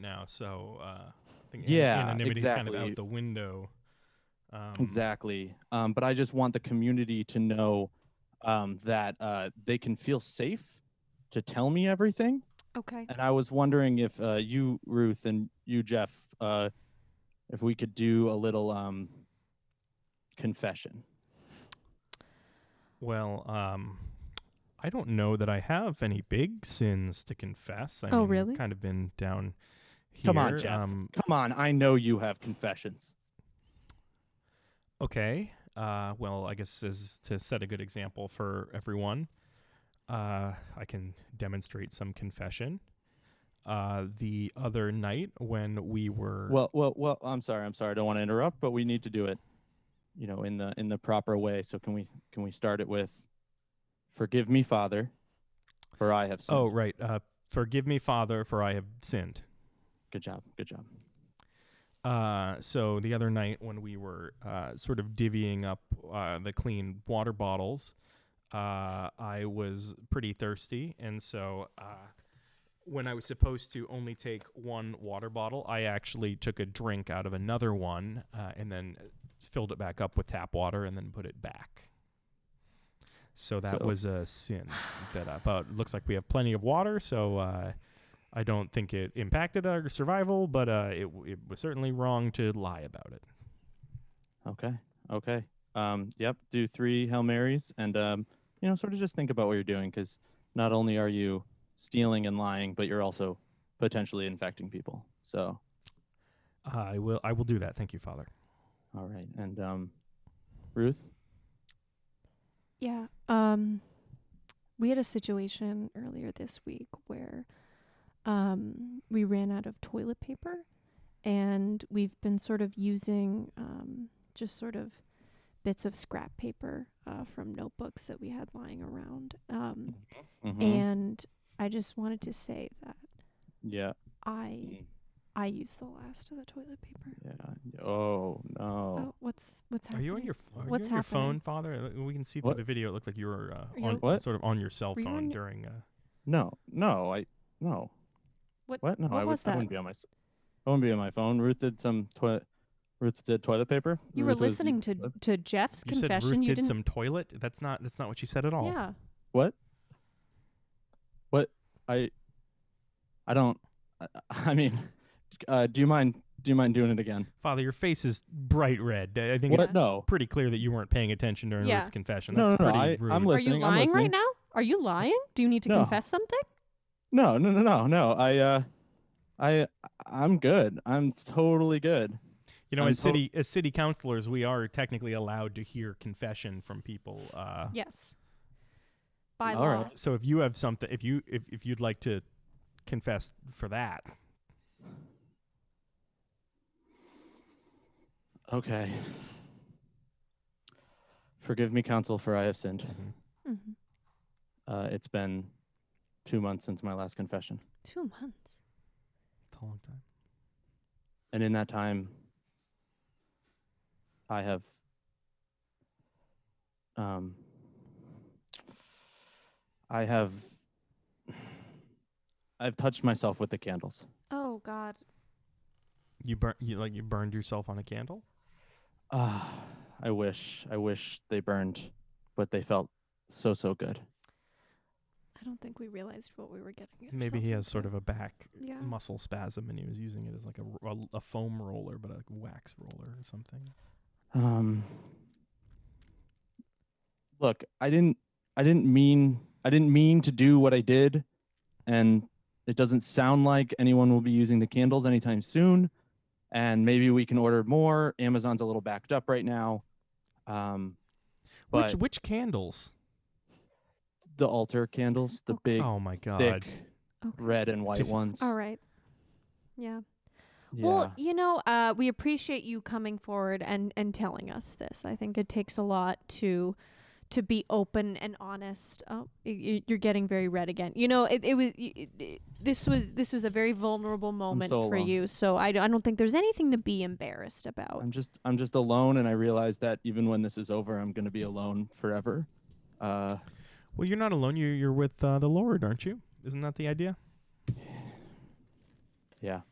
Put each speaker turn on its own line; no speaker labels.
now, so uh, I think
Yeah,
anonymity kind of
exactly.
out the window. Um,
Exactly. Um, but I just want the community to know um, that uh, they can feel safe to tell me everything.
Okay.
And I was wondering if uh, you, Ruth, and you, Jeff, uh, if we could do a little um, confession.
Well, um, I don't know that I have any big sins to confess. I
Oh,
mean, I've
really?
Kind of been down here.
Come on, Jeff.
Um,
Come on. I know you have confessions.
Okay. Uh, well, I guess as to set a good example for everyone, uh, I can demonstrate some confession. Uh, the other night when we were
Well, well, well. I'm sorry. I'm sorry. I don't want to interrupt, but we need to do it, you know, in the in the proper way. So can we can we start it with, "Forgive me, Father, for I have sinned."
oh right, uh, forgive me, Father, for I have sinned.
good job. Good job.
Uh, so the other night when we were uh, sort of divvying up uh, the clean water bottles, uh, I was pretty thirsty, and so uh, when I was supposed to only take one water bottle, I actually took a drink out of another one uh, and then filled it back up with tap water and then put it back. So that
So-
was a sin. That uh, but it looks like we have plenty of water, so. Uh, I don't think it impacted our survival, but uh, it, w- it was certainly wrong to lie about it.
Okay. Okay. Um. Yep. Do three Hail Marys, and um, you know, sort of just think about what you're doing, because not only are you stealing and lying, but you're also potentially infecting people. So,
I will. I will do that. Thank you, Father.
all right. And um, Ruth.
Yeah. Um we had a situation earlier this week where um we ran out of toilet paper and we've been sort of using um just sort of bits of scrap paper uh, from notebooks that we had lying around. Um
Mhm.
and I just wanted to say that
yeah.
I I used the last of the toilet paper.
Yeah. Oh no.
Oh, what's what's
Are
happening?
you on your are you
What's
on your phone,
happening?
Father? Uh, We can see through
What?
the video. It looked like you were uh,
you
on
on-
What?
sort of on your cell
Were you
phone
on your-
during. Uh,
No. No. I. No.
What-
What? No,
what
I,
was
would, I
that?
wouldn't be on my. s- I wouldn't be on my phone. Ruth did some toilet. Ruth did toilet paper.
You were
Ruth was-
listening to
what?
to Jeff's
you said
confession.
Ruth
you
did
didn't.
some oh. toilet. That's not. That's not what you said at all.
yeah.
What? What? I. I don't. I, I mean, uh, do you mind? Do you mind doing it again?
Father, your face is bright red. I I think
What?
it's
No.
pretty clear that you weren't paying attention during
Yeah.
Ruth's confession.
No,
That's
no, no,
pretty
I-
rude.
I'm
Are
listening,
you
I'm
lying
listening.
right now? Are you lying? Do you need to
No.
confess something?
No. No. No. No. No. I. Uh, I. I'm good. I'm totally good.
You know,
I'm
as
tot-
city as city councilors, we are technically allowed to hear confession from people. Uh,
Yes. By
All
law.
right.
So if you have something, if you if, if you'd like to confess for that,
Okay. Forgive me, counsel, for I have sinned.
Mhm.
Uh, it's been two months since my last confession.
Two months.
it's a long time.
And in that time, I have um I have I've touched myself with the candles.
Oh God.
You burn you like you burned yourself on a candle.
Ah, I wish I wish they burned, but they felt so so good.
I don't think we realized what we were getting.
Maybe he has sort of a back
Yeah.
muscle spasm, and he was using it as like a, r- a- a foam roller, but a wax roller or something.
Um Look, I didn't I didn't mean I didn't mean to do what I did and it doesn't sound like anyone will be using the candles anytime soon and maybe we can order more. Amazon's a little backed up right now. Um but
which which candles?
the altar candles, the big
oh my god!
thick
Okay.
red and white
Did-
ones.
All right. Yeah.
Yeah.
Well, you know, uh, we appreciate you coming forward and and telling us this. I think it takes a lot to to be open and honest. Oh, y- y- you're getting very red again. You know, it, it was y it, it- this was this was a very vulnerable moment
so
for
alone.
you. So I, d- I don't think there's anything to be embarrassed about.
I'm just I'm just alone and I realize that even when this is over I'm going to be alone forever. Uh
Well, you're not alone. You you're with uh, the Lord, aren't you? Isn't that the idea?
yeah.